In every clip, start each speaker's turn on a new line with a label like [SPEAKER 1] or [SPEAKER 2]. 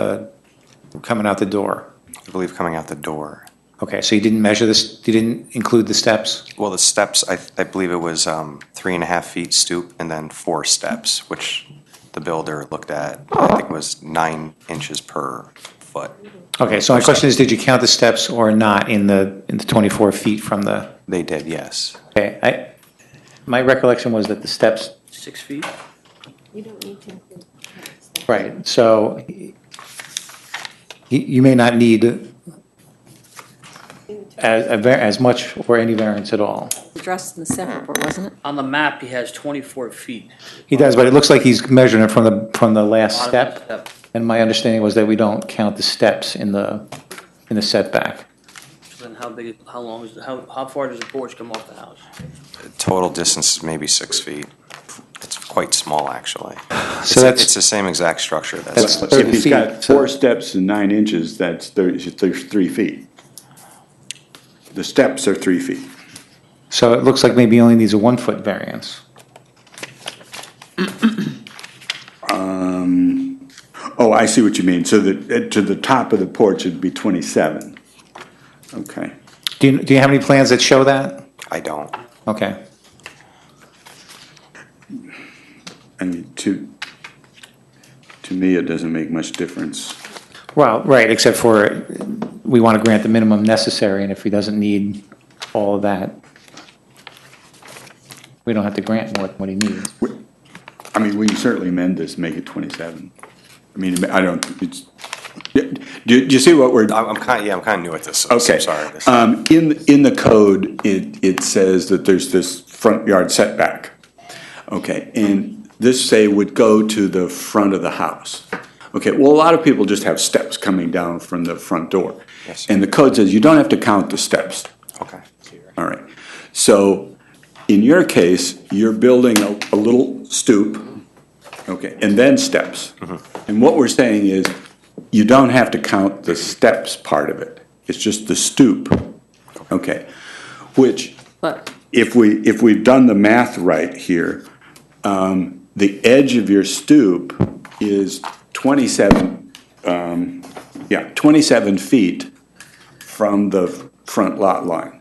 [SPEAKER 1] uh, coming out the door?
[SPEAKER 2] I believe coming out the door.
[SPEAKER 1] Okay, so you didn't measure this, you didn't include the steps?
[SPEAKER 2] Well, the steps, I, I believe it was um, three and a half feet stoop and then four steps, which the builder looked at, I think was nine inches per foot.
[SPEAKER 1] Okay, so my question is, did you count the steps or not in the, in the 24 feet from the,
[SPEAKER 2] They did, yes.
[SPEAKER 1] okay, I, my recollection was that the steps,
[SPEAKER 3] Six feet?
[SPEAKER 4] You don't need to include.
[SPEAKER 1] right, so y- you may not need as, a var- as much or any variance at all.
[SPEAKER 4] Addressed in the staff report, wasn't it?
[SPEAKER 3] On the map, he has 24 feet.
[SPEAKER 1] He does, but it looks like he's measuring it from the, from the last
[SPEAKER 3] Bottom of the
[SPEAKER 1] step. And my understanding was that we don't count the steps in the, in the setback.
[SPEAKER 3] So Then how big, how long is, how, how far does the porch come off the house?
[SPEAKER 2] Total distance is maybe six feet. It's quite small, actually.
[SPEAKER 1] So
[SPEAKER 2] It's- It's
[SPEAKER 1] that's,
[SPEAKER 2] the same exact structure
[SPEAKER 1] That's-
[SPEAKER 2] that's,
[SPEAKER 1] Thirty
[SPEAKER 5] If he's
[SPEAKER 1] feet.
[SPEAKER 5] got four steps and nine inches, that's thirty, there's three feet. The steps are three feet.
[SPEAKER 1] so it looks like maybe he only needs a one-foot variance.
[SPEAKER 5] Oh, I see what you mean, so that, uh, to the top of the porch would be twenty-seven. Okay.
[SPEAKER 1] Do you, do you have any plans that show that?
[SPEAKER 2] I don't.
[SPEAKER 1] Okay.
[SPEAKER 5] I mean, to, to me, it doesn't make much difference.
[SPEAKER 1] Well, right, except for we want to grant the minimum necessary, and if he doesn't need all of that, we don't have to grant more than what he needs.
[SPEAKER 5] I mean, we can certainly amend this, make it twenty-seven. I mean, I don't, it's, do, do you see what we're?
[SPEAKER 2] I'm, I'm kind, yeah, I'm kind of new at this. so
[SPEAKER 5] Okay.
[SPEAKER 2] I'm sorry. This-
[SPEAKER 1] Uh,
[SPEAKER 5] Um, in, in the code, it, it says that there's this front yard setback. Okay, and this say would go to the front of the house. Okay, well, a lot of people just have steps coming down from the front door.
[SPEAKER 2] Yes, sir.
[SPEAKER 5] And the code says you don't have to count the steps.
[SPEAKER 2] Okay.
[SPEAKER 5] All right. So in your case, you're building a, a little stoop, okay, and then steps. And what we're saying is, you don't have to count the steps part of it. It's just the stoop, okay? Which,
[SPEAKER 4] But
[SPEAKER 5] if we, if we've done the math right here, um, the edge of your stoop is twenty-seven, um, yeah, twenty-seven feet from the front lot line.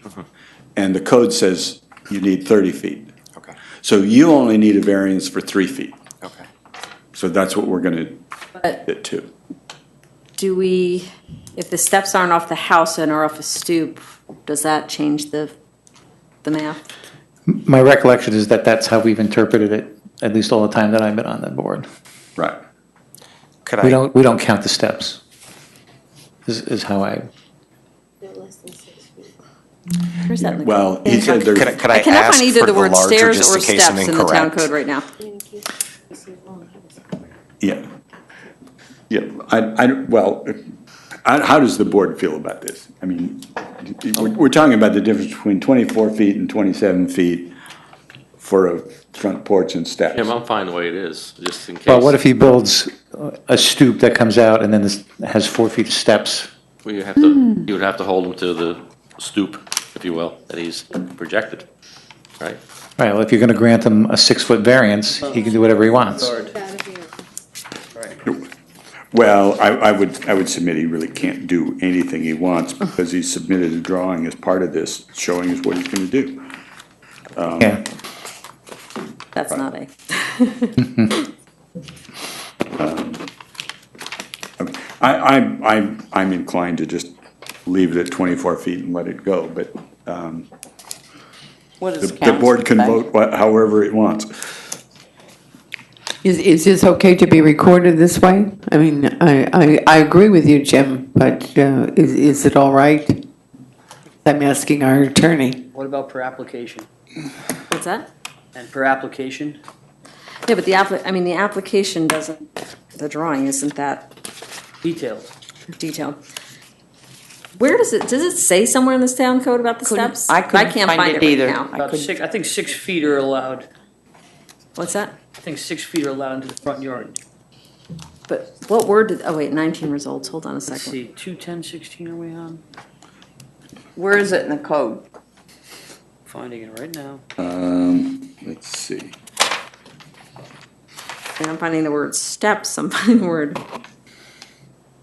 [SPEAKER 5] And the code says you need thirty feet.
[SPEAKER 2] Okay.
[SPEAKER 5] So you only need a variance for three feet.
[SPEAKER 2] Okay.
[SPEAKER 5] So that's what we're gonna
[SPEAKER 4] But-
[SPEAKER 5] get to.
[SPEAKER 4] do we, if the steps aren't off the house and are off a stoop, does that change the, the math?
[SPEAKER 1] My recollection is that that's how we've interpreted it, at least all the time that I've been on the board.
[SPEAKER 5] Right.
[SPEAKER 2] Could
[SPEAKER 1] We
[SPEAKER 2] I,
[SPEAKER 1] don't, we don't count the steps, is, is how I,
[SPEAKER 4] No less than six feet. Where's that? in the
[SPEAKER 5] Well,
[SPEAKER 4] code?
[SPEAKER 5] he said
[SPEAKER 2] could I
[SPEAKER 5] there's,
[SPEAKER 2] could I
[SPEAKER 4] I cannot
[SPEAKER 2] ask
[SPEAKER 4] find
[SPEAKER 2] for
[SPEAKER 4] either
[SPEAKER 2] the
[SPEAKER 4] the word
[SPEAKER 2] larger,
[SPEAKER 4] stairs
[SPEAKER 2] just
[SPEAKER 4] or
[SPEAKER 2] in case I'm
[SPEAKER 4] steps in the town
[SPEAKER 2] incorrect?
[SPEAKER 4] code right now.
[SPEAKER 5] yeah. Yeah, I, I, well, I, how does the board feel about this? I mean, we're, we're talking about the difference between twenty-four feet and twenty-seven feet for a front porch and steps.
[SPEAKER 6] Jim, I'm fine the way it is, just in case.
[SPEAKER 1] well, what if he builds a stoop that comes out and then this- has four feet of steps?
[SPEAKER 6] We have to, you would have to hold him to the stoop, if you will, that he's projected, right?
[SPEAKER 1] All right, well, if you're going to grant him a six-foot variance, he can do whatever he wants.
[SPEAKER 5] Well, I, I would, I would submit he really can't do anything he wants because he submitted a drawing as part of this showing us what he's gonna do.
[SPEAKER 1] Yeah,
[SPEAKER 4] That's not a,
[SPEAKER 5] I, I'm, I'm, I'm inclined to just leave it at twenty-four feet and let it go, but
[SPEAKER 7] What
[SPEAKER 5] the,
[SPEAKER 7] does
[SPEAKER 5] the
[SPEAKER 7] council
[SPEAKER 5] board can
[SPEAKER 7] think?
[SPEAKER 5] vote wha- however it wants.
[SPEAKER 7] Is, is this okay to be recorded this way? I mean, I, I, I agree with you, Jim, but uh, is, is it all right? I'm asking our attorney.
[SPEAKER 3] What about per application?
[SPEAKER 4] what's that?
[SPEAKER 3] And per application,
[SPEAKER 4] Yeah, but the appli, I mean, the application doesn't, the drawing isn't that
[SPEAKER 3] details.
[SPEAKER 4] detailed. Where does it, does it say somewhere in this town code about the
[SPEAKER 7] Couldn't-
[SPEAKER 4] steps?
[SPEAKER 7] I couldn't
[SPEAKER 4] can't
[SPEAKER 7] find it
[SPEAKER 4] right
[SPEAKER 7] either.
[SPEAKER 4] now.
[SPEAKER 7] I
[SPEAKER 3] About
[SPEAKER 7] couldn't-
[SPEAKER 3] six, I think six feet are allowed,
[SPEAKER 4] What's that?
[SPEAKER 3] I think six feet are allowed into the front yard.
[SPEAKER 4] But what word did, oh wait, 19 results, hold on a
[SPEAKER 3] Let's
[SPEAKER 4] second.
[SPEAKER 3] see, two, ten, sixteen are we on?
[SPEAKER 7] Where is it in the code?
[SPEAKER 3] Finding it right now.
[SPEAKER 5] Um, let's see.
[SPEAKER 4] And I'm finding the word steps, I'm finding the word